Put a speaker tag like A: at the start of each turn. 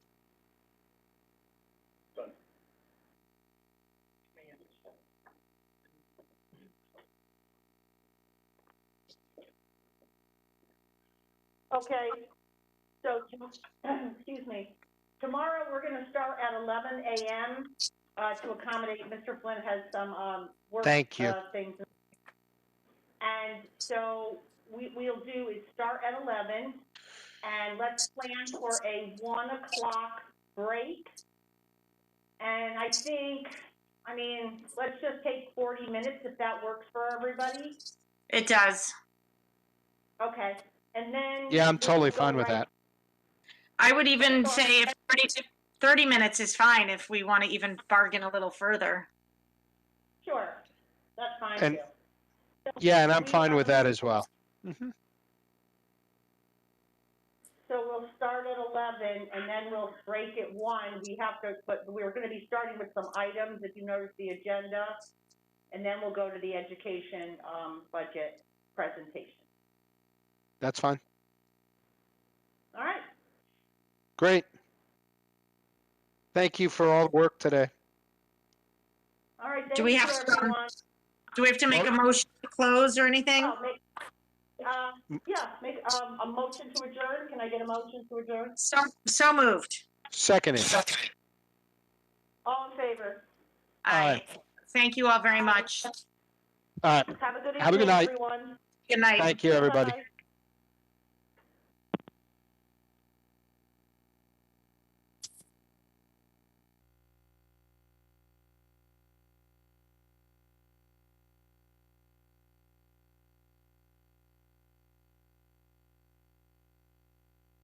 A: Okay, so, excuse me, tomorrow, we're gonna start at eleven AM, uh, to accommodate, Mr. Flynn has some, um, work,
B: Thank you.
A: uh, things. And so, we, we'll do is start at eleven, and let's plan for a one o'clock break. And I think, I mean, let's just take forty minutes if that works for everybody,
C: It does.
A: okay, and then.
B: Yeah, I'm
A: we'll
B: totally
A: go
B: fine with
A: right
B: that.
C: I would even say if 30, 30 minutes is fine if we want to even bargain a little further.
A: Sure, that's fine
B: And-
A: too. So
B: Yeah, and I'm
A: we
B: fine
A: have-
B: with that as well. Mhm.
A: So we'll start at eleven and then we'll break at one. We have to, but we're gonna be starting with some items, if you notice the agenda. And then we'll go to the education, um, budget presentation.
B: That's fine.
A: All right,
B: Great. Thank you for all the work today.
A: all right,
C: Do we
A: thank you
C: have
A: for
C: some
A: everyone.
C: Do we have to make a motion to close or anything?
A: Oh, make- Uh, yeah, make, um, a motion to adjourn. Can I get a motion to adjourn?
C: So, so moved.
B: Seconded.
A: All in favor?
C: Aye. Thank you all very much.
B: All right.
A: Have a good
B: Have a good
A: evening,
B: night.
A: everyone.
C: Good night.
B: Thank you, everybody.
A: Bye.